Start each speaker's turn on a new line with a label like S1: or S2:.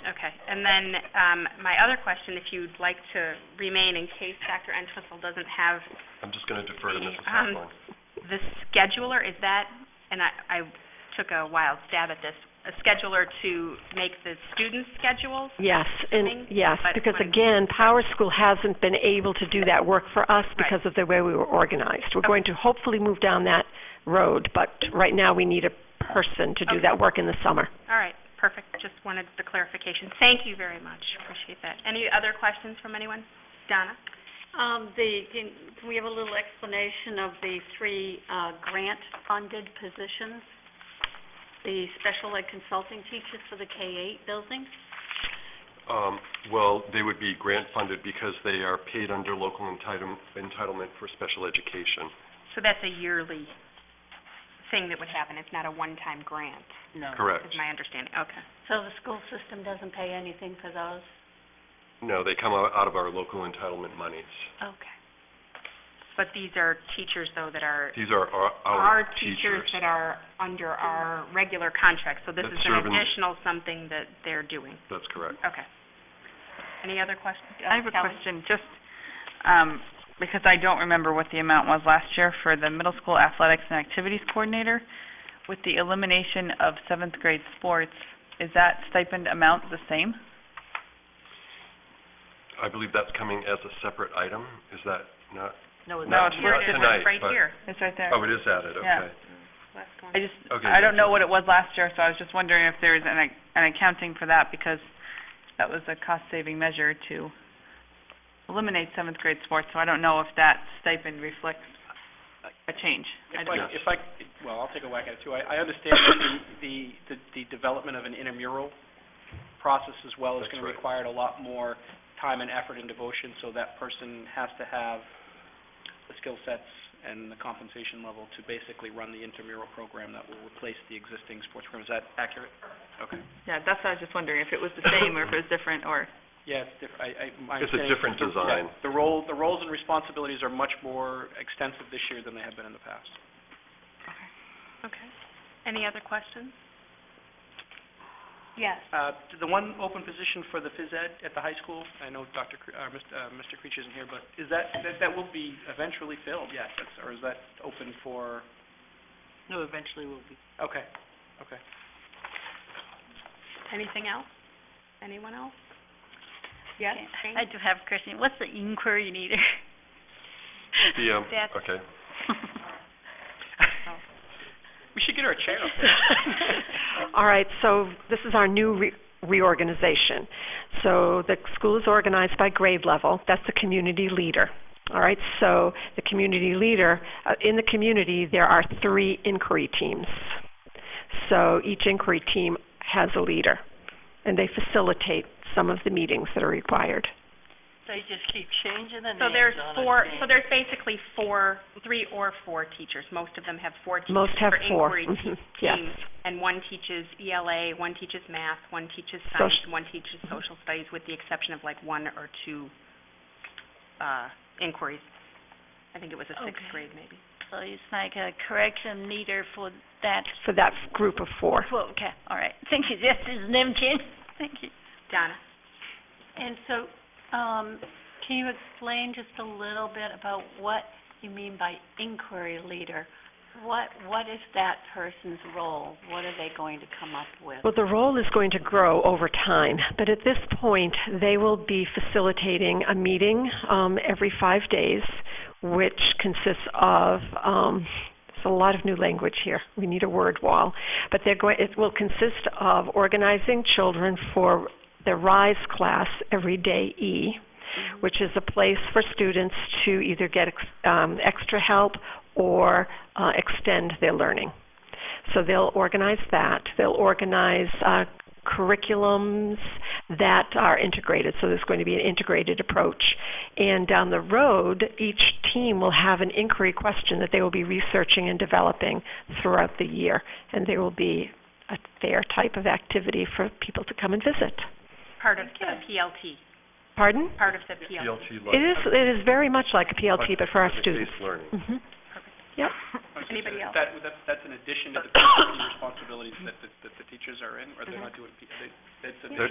S1: Okay. And then um, my other question, if you'd like to remain in case Dr. Entwistle doesn't have
S2: I'm just going to defer to
S1: The,
S2: Mrs.
S1: um,
S2: Heffron.
S1: the scheduler, is that, and I, I took a wild stab at this, a scheduler to make the student schedules?
S3: Yes, and,
S1: Thing,
S3: yes,
S1: but
S3: because
S1: when-
S3: again, Power School hasn't been able to do that work for us because of the way we were organized. We're
S1: Okay.
S3: going to hopefully move down that road, but right now, we need a person to do
S1: Okay.
S3: that work in the summer.
S1: All right, perfect. Just wanted the clarification. Thank you very much. Appreciate that. Any other questions from anyone? Donna?
S4: Um, the, can can we have a little explanation of the three, uh, grant-funded positions? The special ed consulting teachers for the K-8 building?
S2: Um, Well, they would be grant-funded because they are paid under local entitlem- entitlement for special education.
S1: So that's a yearly thing that would happen. It's not a one-time grant,
S2: Correct.
S1: is my understanding. Okay.
S4: So the school system doesn't pay anything for those?
S2: No, they come out out of our local entitlement monies.
S1: Okay. But these are teachers, though, that are,
S2: These are our
S1: are
S2: our
S1: teachers that are under our regular contract. So this
S2: That
S1: is an
S2: serve in-
S1: additional something that they're doing.
S2: That's correct.
S1: Okay. Any other uh, questions?
S5: I have a question, just, um, because I don't remember what the amount was last year for the middle school athletics and activities coordinator. With the elimination of seventh grade sports, is that stipend amount the same?
S2: I believe that's coming as a separate item. Is that not?
S5: No,
S2: it's not
S5: here.
S2: listed. Tonight,
S1: Right
S2: but-
S1: here.
S5: It's right there.
S2: Oh, it is added,
S5: Yeah.
S2: okay.
S1: Last one.
S5: I just,
S2: Okay,
S5: I don't
S2: that's
S5: know
S2: it.
S5: what it was last year, so I was just wondering if there was an, ac- an accounting for that, because that was a cost-saving measure to eliminate seventh grade sports, so I don't know if that stipend reflects a change. I
S6: If
S5: don't
S6: I,
S5: know.
S2: Yes.
S6: if I, well, I'll take a whack at it too. I, I understand that the- the, the, the development of an intramural process as well is
S2: That's
S6: going to
S2: right.
S6: require a lot more time and effort and devotion, so that person has to have the skill sets and the compensation level to basically run the intramural program that will replace the existing sports program. Is that accurate? Okay.
S5: Yeah, that's what I was just wondering, if it was the same or if it was different or...
S6: Yeah, it's diff, I, I, my
S2: It's a
S6: understanding-
S2: different design.
S6: Yeah, The role, the roles and responsibilities are much more extensive this year than they have been in the past.
S1: Okay. Any other questions?
S6: Uh, The one open position for the phys ed at the high school, I know Dr., Cre- uh, Mr. uh, Mr. Creech isn't here, but is that, that- that will be eventually filled, yes, that's- or is that open for? No, eventually will be. Okay, okay.
S1: Anything else? Anyone else?
S4: Yes. I do have a question. What's the inquiry needed?
S2: The, um,
S1: That's-
S2: okay.
S6: We should get her a chair up
S3: All right, so this is our new re- reorganization. So the school is organized by grade level. That's the community leader. All right, so the community leader, uh, in the community, there are three inquiry teams. So each inquiry team has a leader, and they facilitate some of the meetings that are required.
S4: They just keep changing the
S1: So there's four, so there's basically four, three or four teachers. Most of them have four teachers
S3: Most have
S1: for
S3: four.
S1: inquiry te-
S5: Mm-hmm.
S3: Mhm, Yes.
S1: teams. And one teaches ELA, one teaches math, one teaches science,
S3: Soci-
S1: one teaches social studies, with the exception of like one or two uh inquiries. I think it was a sixth
S4: Okay.
S1: grade maybe.
S4: So it's like a correction leader for that.
S3: For that group of four.
S4: Well, okay, all right. Thank you. This is Nimkin. Thank you.
S1: Donna?
S4: And so, um, can you explain just a little bit about what you mean by inquiry leader? What, what is that person's role? What are they going to come up with?
S3: Well, the role is going to grow over time, but at this point, they will be facilitating a meeting um, every five days, which consists of um, it's a lot of new language here. We need a word wall, but they're going. It will consist of organizing children for the RISE class every day E, which is a place for students to either get ex- um, extra help or uh, extend their learning. So they'll organize that. They'll organize uh, curriculums that are integrated. So there's going to be an integrated approach. And down the road, each team will have an inquiry question that they will be researching and developing throughout the year. And there will be a fair type of activity for people to come and visit.
S1: Part of the PLT,
S3: Pardon?
S1: part of the PLT.
S2: PLT
S3: It is, it is very much like a PLT, but for our students.
S2: Project-based
S3: hmm
S2: learning.
S3: Yep.
S1: Anybody else?
S6: That, that, that's Uh-huh. in addition to the responsibilities that, the- that the teachers are in, or they're not doing, P- they- that's a.
S2: They're-